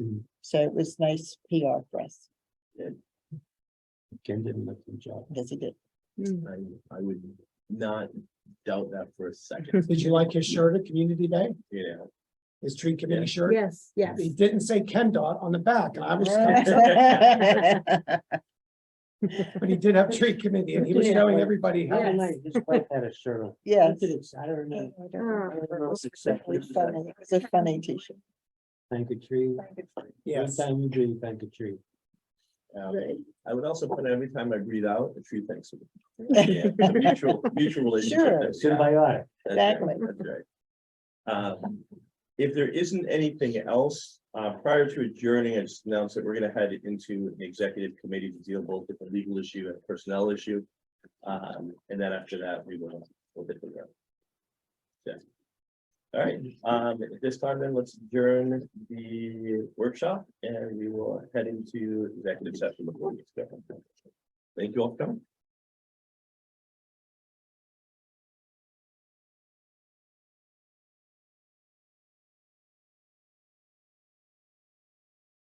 Mhm. So it was nice PR for us, Ken did an excellent job. because he did. Mm. I, I would not doubt that for a second, Did you like his shirt at Community Day? you know. His tree committee Yeah. shirt? Yes, yes. He didn't say Ken Dot on the back. and I was, but he did have tree committee and he was Yeah. showing everybody how. Yeah. to- Yes. His wife had a shirt on. Yeah. He did it Saturday night. Oh. I don't know if it's exactly It's funny. that. It's a funny t-shirt. Thank a tree. Yes. Anytime you do, thank a tree. um, Right. I would also put every time I breathe out, a tree thanks me. Yeah, it's a Mutual, mutual relationship. Sure. that we have. Symbiotic. That's right, Exactly. that's right. Um, If there isn't anything else, uh, prior to adjourning, I just announced that we're gonna head into the executive committee to deal both with the legal issue and personnel issue. Um, and then after that, we will, we'll get the rest. Yeah. All right, um, at this time then, let's adjourn the workshop and we will head into executive session before we start. Thank you all for coming.